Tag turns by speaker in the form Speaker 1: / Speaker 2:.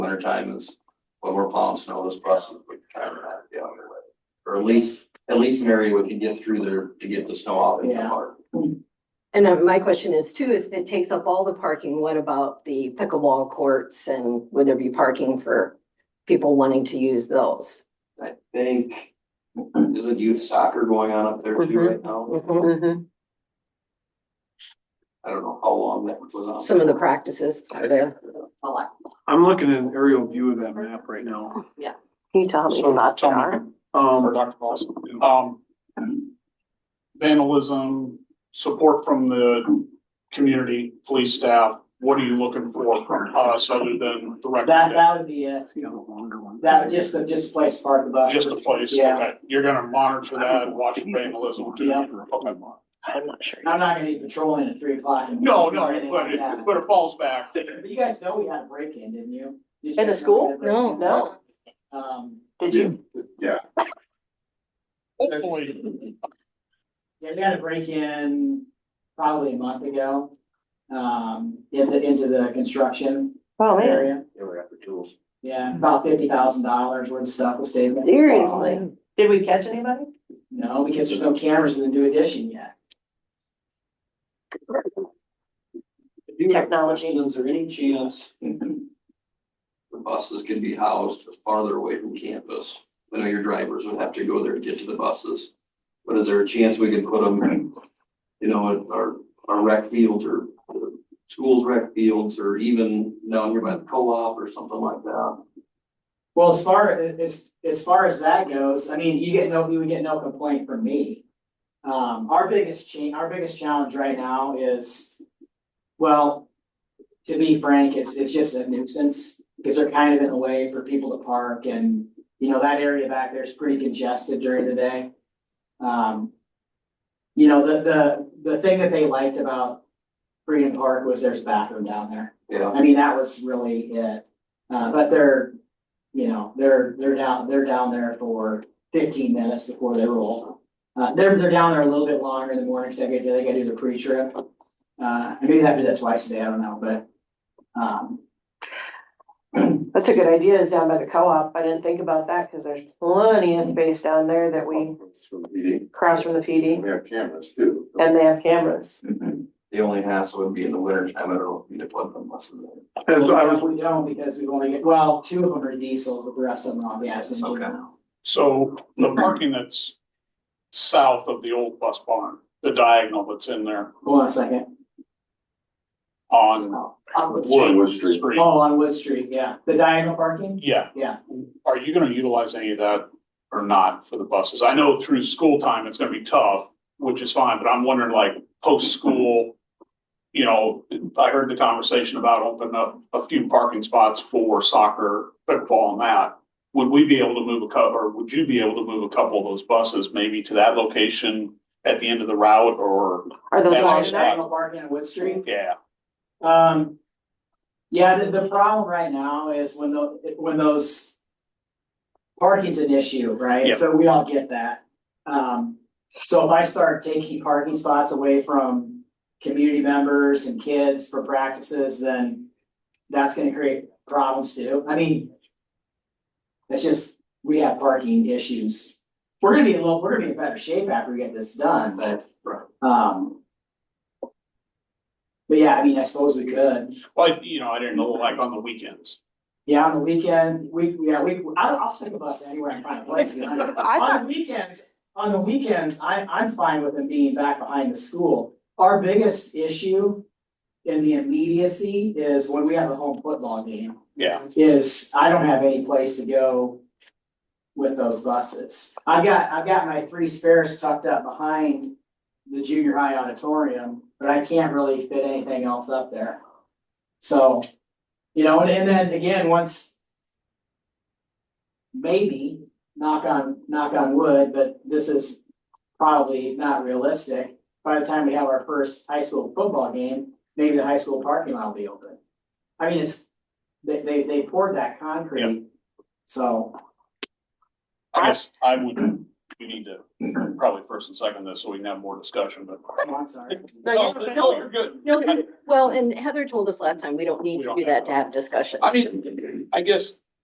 Speaker 1: time is when we're plowing snow, those buses would try to not be on their way. Or at least, at least an area we can get through there to get the snow out in the
Speaker 2: Yeah.
Speaker 1: park.
Speaker 3: And uh, my question is too, is if it takes up all the parking, what about the pickleball courts and would there be parking for people wanting to use those?
Speaker 1: I think, isn't youth soccer going on up there too
Speaker 2: Mhm.
Speaker 1: right now?
Speaker 3: Mhm.
Speaker 2: Mm-hmm.
Speaker 1: I don't know how long that was on.
Speaker 3: Some of the practices are there.
Speaker 4: a lot.
Speaker 5: I'm looking at an aerial view of that map right now.
Speaker 2: Can you tell how many
Speaker 6: So,
Speaker 2: spots there
Speaker 6: tell me,
Speaker 2: are?
Speaker 6: or
Speaker 5: Um,
Speaker 6: Dr. Moss, um, vandalism, support from the community, police staff, what are you looking for from us other than the
Speaker 4: That,
Speaker 6: recommendation?
Speaker 4: that would be it.
Speaker 5: see, I have a longer one.
Speaker 4: That, just the, just a place to park the bus.
Speaker 6: Just a place,
Speaker 4: Yeah.
Speaker 6: okay, you're gonna monitor that, watch vandalism too?
Speaker 4: Yeah.
Speaker 6: Okay.
Speaker 2: I'm not sure.
Speaker 4: I'm not gonna be patrolling at three o'clock. in the
Speaker 6: No,
Speaker 4: morning or
Speaker 6: no,
Speaker 4: anything
Speaker 6: but
Speaker 4: like
Speaker 6: it,
Speaker 4: that.
Speaker 6: but it falls back.
Speaker 4: But you guys know we had a break-in, didn't you? Did you
Speaker 2: In the
Speaker 4: guys know
Speaker 2: school?
Speaker 4: we had a break-in?
Speaker 2: No.
Speaker 4: Um,
Speaker 2: Did you?
Speaker 6: Hopefully,
Speaker 4: yeah, we had a break-in probably a month ago, um, in the, into the construction
Speaker 2: Oh, man.
Speaker 4: area.
Speaker 1: They were after tools.
Speaker 4: Yeah, about fifty thousand dollars worth of stuff was taken.
Speaker 2: Seriously? Did we catch anybody?
Speaker 4: No, because there's no cameras in the new addition yet.
Speaker 1: I do have a
Speaker 2: Technology.
Speaker 1: question. Is there any chance the buses can be housed farther away from campus? I know your drivers would have to go there to get to the buses, but is there a chance we could put them, you know, at our, our rec fields or the schools rec fields or even down here by the co-op or something like that?
Speaker 4: Well, as far as, as far as that goes, I mean, you get no, you would get no complaint from me. Um, our biggest cha- our biggest challenge right now is, well, to be frank, it's, it's just a nuisance. Because they're kind of in the way for people to park and, you know, that area back there is pretty congested during the day. Um, you know, the, the, the thing that they liked about Freedom Park was there's bathroom down there.
Speaker 1: Yeah,
Speaker 4: I mean, that was really it. Uh, but they're, you know, they're, they're down, they're down there for fifteen minutes before they roll. Uh, they're, they're down there a little bit longer in the morning, so they gotta, they gotta do the pre-trip. Uh, maybe they have to do that twice a day, I don't know, but, um,
Speaker 2: That's a good idea, is down by the co-op. I didn't think about that because there's plenty of space down there that we cross from the PD
Speaker 7: We have cameras too.
Speaker 2: and they have cameras.
Speaker 1: the only hassle would be in the winter time. I don't know if we need to put them buses in.
Speaker 5: As I was,
Speaker 4: we don't because we've only, got- well, two of them are diesel, but the rest of them are gas and
Speaker 1: Okay.
Speaker 4: diesel.
Speaker 6: so the parking that's south of the old bus barn, the diagonal that's in there
Speaker 4: Hold on a second.
Speaker 6: on
Speaker 4: On Wood Street.
Speaker 6: Wood
Speaker 7: Wood Street.
Speaker 6: Street.
Speaker 4: Oh, on Wood Street, yeah. The diagonal parking?
Speaker 6: Yeah.
Speaker 4: Yeah.
Speaker 6: Are you gonna utilize any of that or not for the buses? I know through school time, it's gonna be tough, which is fine, but I'm wondering like post-school. You know, I heard the conversation about opening up a few parking spots for soccer, football and that. Would we be able to move a couple, or would you be able to move a couple of those buses maybe to that location at the end of the route or,
Speaker 2: Are those
Speaker 6: That's
Speaker 2: long
Speaker 6: our
Speaker 2: enough?
Speaker 6: spot.
Speaker 4: Diagonal parking on Wood Street?
Speaker 6: yeah?
Speaker 4: Um, yeah, the, the problem right now is when the, when those. Parking's an issue, right?
Speaker 6: Yep.
Speaker 4: So we all get that. Um, so if I start taking parking spots away from community members and kids for practices, then. That's gonna create problems too. I mean. It's just, we have parking issues. We're gonna be a little, we're gonna be in better shape after we get this done, but, um. But yeah, I mean, I suppose we could.
Speaker 6: Like, you know, I didn't know, like on the weekends.
Speaker 4: Yeah, on the weekend, we, yeah, we, I'll, I'll stick a bus anywhere I find a place. to be honest. On
Speaker 2: I thought,
Speaker 4: the weekends, on the weekends, I, I'm fine with them being back behind the school. Our biggest issue in the immediacy is when we have a home football game,
Speaker 6: Yeah,
Speaker 4: um, is I don't have any place to go with those buses. I've got, I've got my three spares tucked up behind the junior high auditorium, but I can't really fit anything else up there. So, you know, and, and then again, once maybe, knock on, knock on wood, but this is probably not realistic. By the time we have our first high school football game, maybe the high school parking lot will be open. I mean, it's, they, they, they poured that concrete, so.
Speaker 6: I guess I would we need to probably first and second this, so we can have more discussion, but.
Speaker 4: Oh, I'm sorry.
Speaker 6: No, no, you're good.
Speaker 3: No, well, and Heather told us last time, we don't need
Speaker 6: We
Speaker 3: to
Speaker 6: don't
Speaker 3: do
Speaker 6: have
Speaker 3: that
Speaker 6: to.
Speaker 3: to have discussion.
Speaker 6: I mean, I guess